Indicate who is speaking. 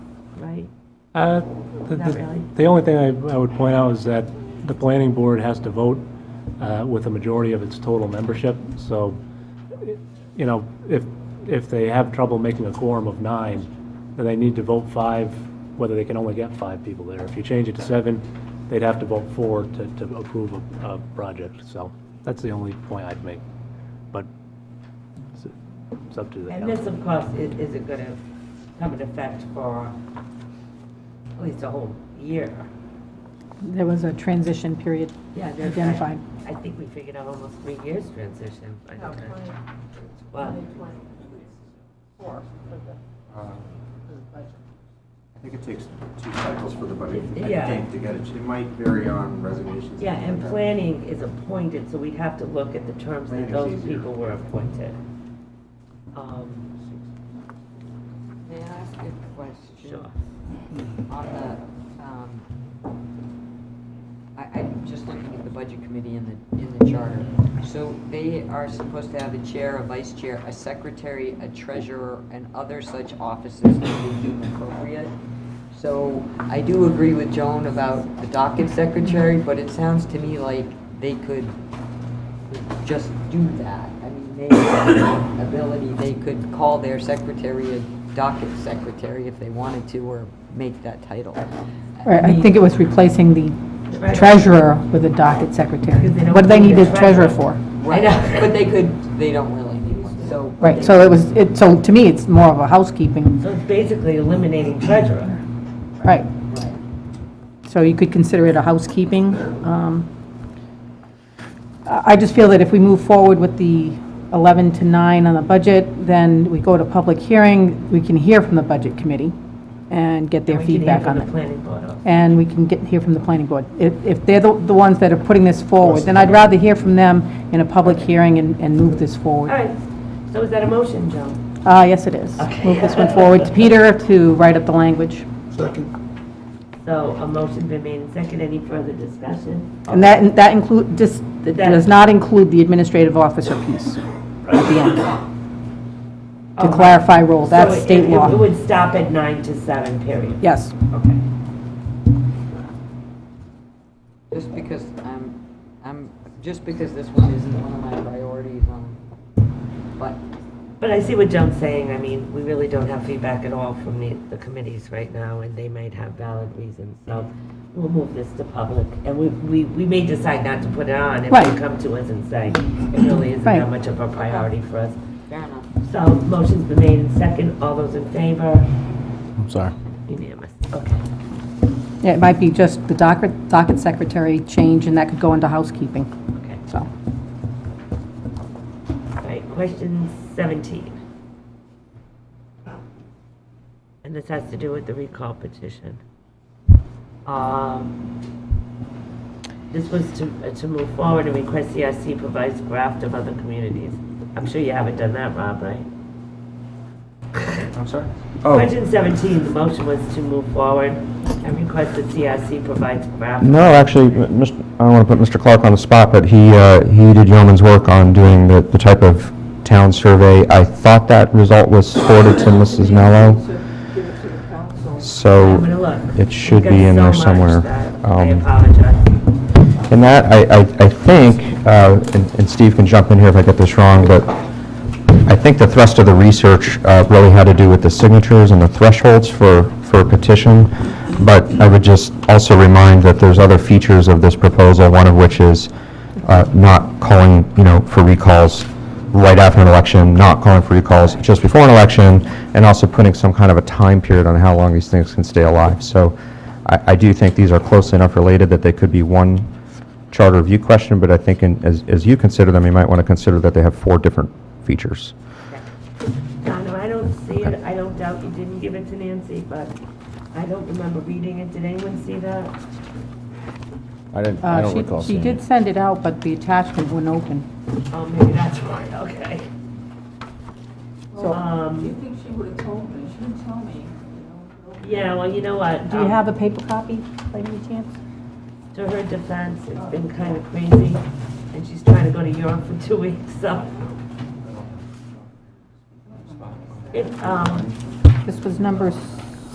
Speaker 1: Uh, the-
Speaker 2: Not
Speaker 1: the-
Speaker 2: really.
Speaker 1: The only thing I I would point out is that the planning board has to vote uh, with a majority of its total membership, so, i- you know, if, if they have trouble making a quorum of nine, then they need to vote five, whether they can only get five people there. If you change it to seven, they'd have to vote four to, to approve a, a project, so that's the only point I'd make. But it's it's up to the
Speaker 2: And this,
Speaker 1: council.
Speaker 2: of course, is, is it gonna come into effect for at least a whole year?
Speaker 3: There was a transition period
Speaker 2: Yeah, there's- I-
Speaker 3: identified.
Speaker 2: I think we figured out almost three years transition. I don't know. Wow.
Speaker 4: Uh, I think it takes two cycles for the budget, I
Speaker 2: Yeah.
Speaker 4: think, to get it, it might vary on resignations.
Speaker 2: Yeah, and
Speaker 4: things like that.
Speaker 2: planning is appointed, so we'd have to look at the terms that
Speaker 4: Planning's
Speaker 2: those
Speaker 4: easier.
Speaker 2: people were appointed. Um,
Speaker 5: May I ask a question?
Speaker 2: Sure.
Speaker 5: On the, um, I, I'm just looking at the budget committee in the, in the charter. So they are supposed to have a chair, a vice chair, a secretary, a treasurer, and other such offices as they deem appropriate. So I do agree with Joan about the docket secretary, but it sounds to me like they could just do that. I mean, they have the ability, they could call their secretary a docket secretary if they wanted to, or make that title.
Speaker 3: Right, I think it was replacing the treasurer with a docket secretary.
Speaker 2: Because they don't
Speaker 3: What do they
Speaker 2: need
Speaker 3: need
Speaker 2: a
Speaker 3: the treasurer
Speaker 2: treasurer.
Speaker 3: for?
Speaker 5: Right, but they could, they don't really need one, so.
Speaker 3: Right, so it was, it, so to me, it's more of a housekeeping,
Speaker 2: So it's basically eliminating treasurer.
Speaker 3: right. So you could consider it a housekeeping. um, I I just feel that if we move forward with the 11 to 9 on the budget, then we go to public hearing, we can hear from the budget committee and get their
Speaker 2: And we can
Speaker 3: feedback
Speaker 2: hear
Speaker 3: on
Speaker 2: from
Speaker 3: it.
Speaker 2: the planning board also.
Speaker 3: and we can get, hear from the planning board. If, if they're the, the ones that are putting this forward, then I'd rather hear from them in a public hearing and, and move this
Speaker 2: All
Speaker 3: forward.
Speaker 2: right, so is that a motion, Joan?
Speaker 3: Uh, yes, it is.
Speaker 2: Okay.
Speaker 3: Move this one forward to Peter to write up the language.
Speaker 2: So a motion been made and second, any further discussion?
Speaker 3: And that, that include, just, it does not include the administrative officer piece at the end, to
Speaker 2: Oh,
Speaker 3: clarify role,
Speaker 2: so
Speaker 3: that's
Speaker 2: it-
Speaker 3: state
Speaker 2: it- It
Speaker 3: law.
Speaker 2: would stop at nine to seven, period?
Speaker 3: Yes,
Speaker 2: Okay.
Speaker 5: Just because I'm, I'm, just because this one isn't one of my priorities, um, but
Speaker 2: But I see what Joan's saying, I mean, we really don't have feedback at all from the, the committees right now, and they might have valid reasons, so we'll move this to public, and we, we, we may decide not to put it on if
Speaker 3: Right.
Speaker 2: they come to us and say, it really isn't that
Speaker 3: Right.
Speaker 2: much of a priority for us.
Speaker 5: fair enough.
Speaker 2: So, motion's been made and second, all those in favor?
Speaker 6: I'm sorry.
Speaker 2: Unanimous, okay.
Speaker 3: Yeah, it might be just the docket, docket secretary change, and that could go into housekeeping,
Speaker 2: Okay,
Speaker 3: so.
Speaker 2: all right, question 17. And this has to do with the recall petition. Um, This was to, uh, to move forward and request E CRC provides graft of other communities. I'm sure you haven't done that, Rob, right?
Speaker 4: I'm sorry?
Speaker 6: Oh.
Speaker 2: Question 17, the motion was to move forward and request that E CRC provides graft.
Speaker 6: No, actually, m- mis- I don't want to put Mr. Clark on the spot, but he, uh, he did yeoman's work on doing the, the type of town survey. I thought that result was forwarded to Mrs. Mello. So
Speaker 2: I'm gonna look.
Speaker 6: it should
Speaker 2: We've
Speaker 6: be
Speaker 2: got
Speaker 6: in
Speaker 2: so
Speaker 6: there
Speaker 2: much
Speaker 6: somewhere.
Speaker 2: that I
Speaker 6: Um,
Speaker 2: apologize.
Speaker 6: And that, I, I, I think, uh, and and Steve can jump in here if I get this wrong, but I think the thrust of the research uh, really had to do with the signatures and the thresholds for, for a petition. But I would just also remind that there's other features of this proposal, one of which is uh, not calling, you know, for recalls right after an election, not calling for recalls just before an election, and also putting some kind of a time period on how long these things can stay alive. So I, I do think these are closely enough related that they could be one charter review question, but I think in- as, as you consider them, you might want to consider that they have four different features.
Speaker 2: Donna, I don't see it, I don't doubt you didn't give it to Nancy, but I don't remember reading it, did anyone see that?
Speaker 7: I didn't, I
Speaker 3: Uh,
Speaker 7: don't
Speaker 3: she-
Speaker 7: recall seeing
Speaker 3: She did
Speaker 7: it.
Speaker 3: send it out, but the attachment wouldn't open.
Speaker 2: Oh, maybe that's why, okay.
Speaker 3: So-
Speaker 2: Um,
Speaker 8: think she would have told me, she didn't tell me, you know.
Speaker 2: yeah, well, you know what?
Speaker 3: Do you
Speaker 2: um,
Speaker 3: have a paper copy, by any chance?
Speaker 2: To her defense, it's been kind of crazy, and she's trying to go to Europe for two weeks, so. It, um,
Speaker 3: This was number